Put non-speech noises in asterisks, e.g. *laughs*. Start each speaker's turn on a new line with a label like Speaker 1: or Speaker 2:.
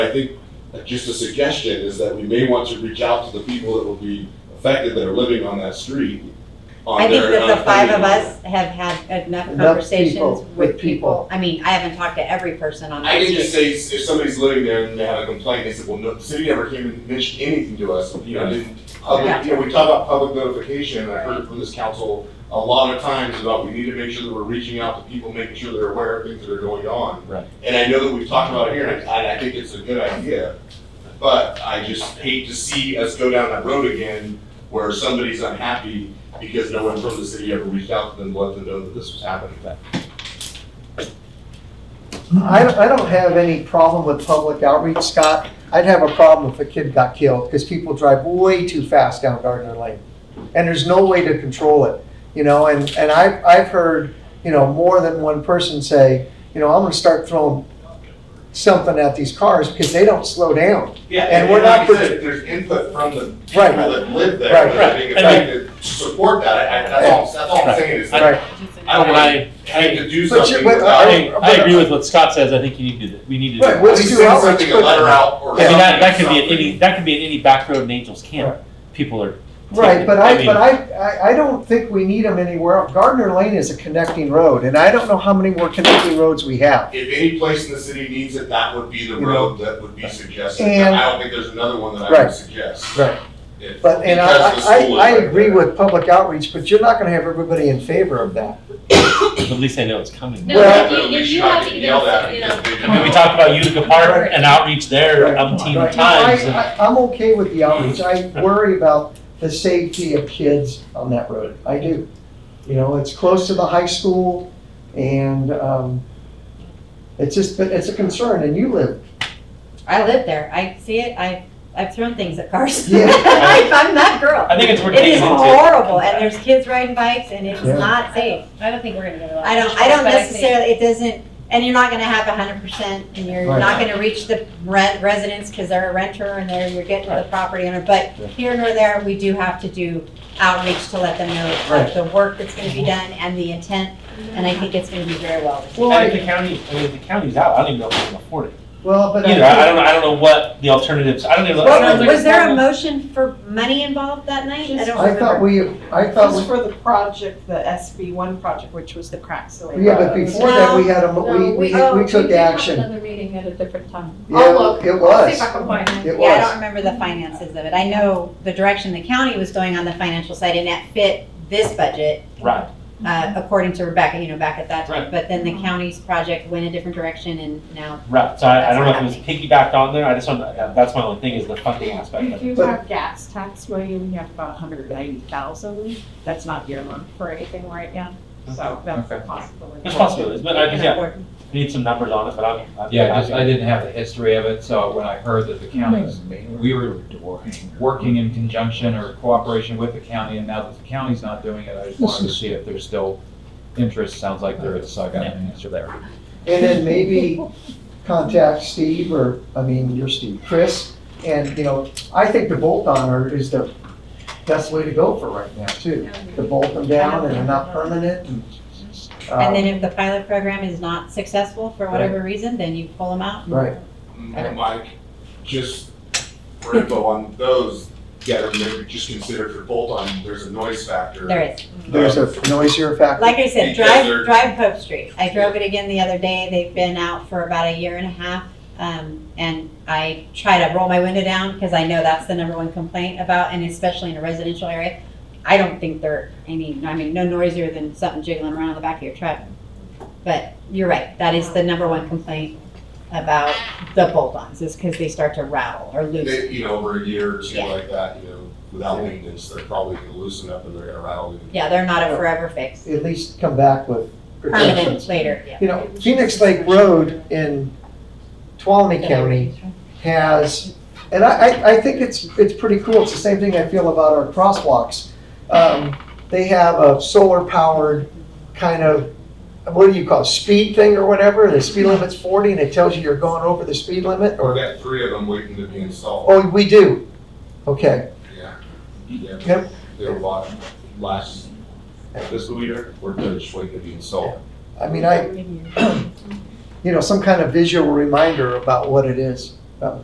Speaker 1: I think just a suggestion is that we may want to reach out to the people that will be affected that are living on that street. on
Speaker 2: I think
Speaker 1: their- uh,
Speaker 2: that
Speaker 1: on
Speaker 2: the five of
Speaker 1: their-
Speaker 2: us have had enough
Speaker 3: Enough people,
Speaker 2: conversations with
Speaker 3: with
Speaker 2: people.
Speaker 3: people.
Speaker 2: I mean, I haven't talked to every person on
Speaker 1: I
Speaker 2: that
Speaker 1: can just say,
Speaker 2: street.
Speaker 1: s- if somebody's living there and they have a complaint, they said, well, no, the city never came and mentioned anything to us, you know, didn't. Public, you know, we talk about public notification, and I've heard it from this council a lot of times about we need to make sure that we're reaching out to people, making sure they're aware of things that are going on.
Speaker 4: Right.
Speaker 1: And I know that we've talked about it here, and I, and I think it's a good idea, but I just hate to see us go down that road again where somebody's unhappy because no one from the city ever reached out to them, to let them know that this was happening.
Speaker 3: I, I don't have any problem with public outreach, Scott. I'd have a problem if a kid got killed, because people drive way too fast down Gardner Lane. And there's no way to control it, you know, and, and I've, I've heard, you know, more than one person say, you know, I'm gonna start throwing something at these cars because they don't slow down.
Speaker 1: Yeah,
Speaker 3: And we're not
Speaker 1: like you
Speaker 3: pres-
Speaker 1: said, if There's input from the people
Speaker 3: Right.
Speaker 1: that live there,
Speaker 3: Right.
Speaker 1: that are being
Speaker 4: Right. And
Speaker 1: affected, to support that, I, I, that's all, that's all I'm
Speaker 4: Right.
Speaker 1: saying is,
Speaker 3: Right.
Speaker 1: I don't
Speaker 4: I,
Speaker 1: want to have to do
Speaker 3: But you-
Speaker 1: something
Speaker 3: but
Speaker 1: without.
Speaker 4: I, I agree with what Scott says, I think you need to, do that. we need to. do
Speaker 3: Right,
Speaker 4: that.
Speaker 3: we'll
Speaker 1: At
Speaker 3: do
Speaker 1: least send
Speaker 3: outreach
Speaker 1: something, a
Speaker 3: quick.
Speaker 1: letter out
Speaker 4: I
Speaker 1: or
Speaker 4: mean, that, that could be at
Speaker 1: something.
Speaker 4: any, that could be at any back road in Angels Camp, people are.
Speaker 3: Right,
Speaker 4: taking-
Speaker 3: but I,
Speaker 4: mean,
Speaker 3: but I, I, I don't think we need them anywhere. else. Gardner Lane is a connecting road, and I don't know how many more connecting roads we have.
Speaker 1: If any place in the city needs it, that would be the
Speaker 3: You know.
Speaker 1: road that would be suggested,
Speaker 3: And-
Speaker 1: I don't think there's another one that I would
Speaker 3: Right.
Speaker 1: suggest.
Speaker 3: Right.
Speaker 1: If-
Speaker 3: But, and I,
Speaker 1: because the
Speaker 3: I,
Speaker 1: school
Speaker 3: I
Speaker 1: is right
Speaker 3: agree
Speaker 1: there.
Speaker 3: with public outreach, but you're not gonna have everybody in favor of that.
Speaker 4: At least I know it's coming.
Speaker 5: No,
Speaker 3: Well-
Speaker 5: if you, if you have to give
Speaker 1: Yelled
Speaker 5: us,
Speaker 1: at
Speaker 5: you know,
Speaker 1: because they
Speaker 4: I mean, we talked about Utica Park and outreach there
Speaker 3: Right.
Speaker 4: umpteen
Speaker 3: No, I-
Speaker 4: times, and
Speaker 3: I- I'm okay with the outreach, I worry about the safety of kids on that road, I do. You know, it's close to the high school, and, um, it's just, but it's a concern, and you live,
Speaker 2: I live there. I see it. I, I've thrown things at cars. *laughs*
Speaker 3: Yeah.
Speaker 2: I- I'm that girl.
Speaker 4: I think it's we're
Speaker 2: It
Speaker 4: getting
Speaker 2: is
Speaker 4: into.
Speaker 2: horrible and there's kids riding bikes and it's
Speaker 3: Yeah.
Speaker 2: not safe.
Speaker 5: I don't think we're gonna get a lot. of
Speaker 2: I don't, I
Speaker 5: pushback,
Speaker 2: don't
Speaker 5: but think-
Speaker 2: necessarily, it doesn't, and you're not gonna have hundred percent and you're
Speaker 3: Right.
Speaker 2: not gonna reach the rent residents because they're a renter and they're, you're getting the
Speaker 4: Right.
Speaker 2: property owner. But
Speaker 3: Yeah.
Speaker 2: here nor there, we do have to do outreach to let them know of
Speaker 3: Right.
Speaker 2: the work that's gonna be done and the intent. And I think it's gonna be very well received.
Speaker 3: well,
Speaker 4: And if the
Speaker 3: I,
Speaker 4: county, I mean, if the county's out, I don't even know if we can afford it.
Speaker 3: well, but.
Speaker 4: Either, I I don't, know. I don't know what the alternatives, I don't even. I don't know
Speaker 2: Well,
Speaker 4: if
Speaker 2: Was
Speaker 4: there's
Speaker 2: was there a
Speaker 4: affordable-
Speaker 2: motion for money involved that night? I don't
Speaker 3: I thought
Speaker 2: remember.
Speaker 3: we, I thought,
Speaker 6: Just
Speaker 3: we-
Speaker 6: for the project, the SB one project, which was the crack ceiling.
Speaker 3: yeah, but before that, we had a, mo- we,
Speaker 7: No,
Speaker 3: we,
Speaker 7: oh,
Speaker 3: we took
Speaker 7: did have
Speaker 3: action.
Speaker 7: Another meeting at a different time.
Speaker 3: Yeah,
Speaker 7: I'll look.
Speaker 3: It
Speaker 7: I'll see
Speaker 3: was,
Speaker 7: if I can find it.
Speaker 3: it
Speaker 2: Yeah, I don't
Speaker 3: was,
Speaker 2: remember the finances of it. I know the direction the county was going on the financial side and that fit this budget,
Speaker 4: Right,
Speaker 2: uh, according to Rebecca, you know, back at that time.
Speaker 4: Right.
Speaker 2: But then the county's project went a different direction and now,
Speaker 4: right, so I, I don't know if it was
Speaker 2: That's
Speaker 4: piggybacked on there, I just want, to that's my only thing is the funding aspect
Speaker 6: You
Speaker 4: of it.
Speaker 6: do
Speaker 3: But-
Speaker 6: have gas tax, William, you have about hundred and ninety thousand, that's not earmarked for anything right now, so that's a
Speaker 8: Okay.
Speaker 6: possibility.
Speaker 4: It's possible, but I guess,
Speaker 2: you know,
Speaker 4: Uh, yeah,
Speaker 2: we're-
Speaker 4: need some numbers on it, but I'm. I'm
Speaker 8: Yeah, just, I didn't have the history of it, so when I heard that the counties, we were working in conjunction or cooperation with the county, and now that the county's not doing it, I just wanted to see if there's still interest, sounds like there is, so I got an answer there.
Speaker 3: and then maybe contact Steve or, I mean, you're Steve, Chris. And, you know, I think the bolt on are is the best way to go for right now too. To bolt them down and they're not permanent and.
Speaker 2: And then
Speaker 3: um,
Speaker 2: if the pilot program is not successful for whatever reason, then you pull them out. and-
Speaker 3: um, Right,
Speaker 1: Mm, Mike, just for info on those, yeah, maybe just consider for bolt on, there's a noise factor.
Speaker 2: There is.
Speaker 3: there's a noisier factor.
Speaker 2: Like I said,
Speaker 1: Because
Speaker 2: drive,
Speaker 1: they're-
Speaker 2: drive Pope Street. I drove it again the other day. They've been out for about a year and a half. Um, and I try to roll my window down because I know that's the number one complaint about, and especially in a residential area. I don't think they're any, I mean, no noisier than something jiggling around the back of your truck. But you're right, that is the number one complaint about the bolt-ons is because they start to rattle or
Speaker 1: They,
Speaker 2: loosen.
Speaker 1: you know, over a year or two
Speaker 2: Yeah.
Speaker 1: like that, you know, without maintenance, they're probably gonna loosen up and they're gonna rattle. you.
Speaker 2: Yeah, they're not a forever fix.
Speaker 3: At least come back with
Speaker 2: Permanent
Speaker 3: protections.
Speaker 2: later, yeah.
Speaker 3: You know, Phoenix Lake Road in Tuolumne County has, and I, I, I think it's, it's pretty cool. It's the same thing I feel about our crosswalks. Um, they have a solar powered kind of, what do you call it, speed thing or whatever? The speed limit's forty and it tells you you're going over the speed limit
Speaker 1: Or
Speaker 3: or,
Speaker 1: that three of them waiting to be installed,
Speaker 3: oh, we do. Okay,
Speaker 1: yeah. Yeah,
Speaker 3: Yep.
Speaker 1: there were a lot last, this leader, we're just waiting to be installed.
Speaker 3: *clears throat* I mean, I, you know, some kind of visual reminder about what it is.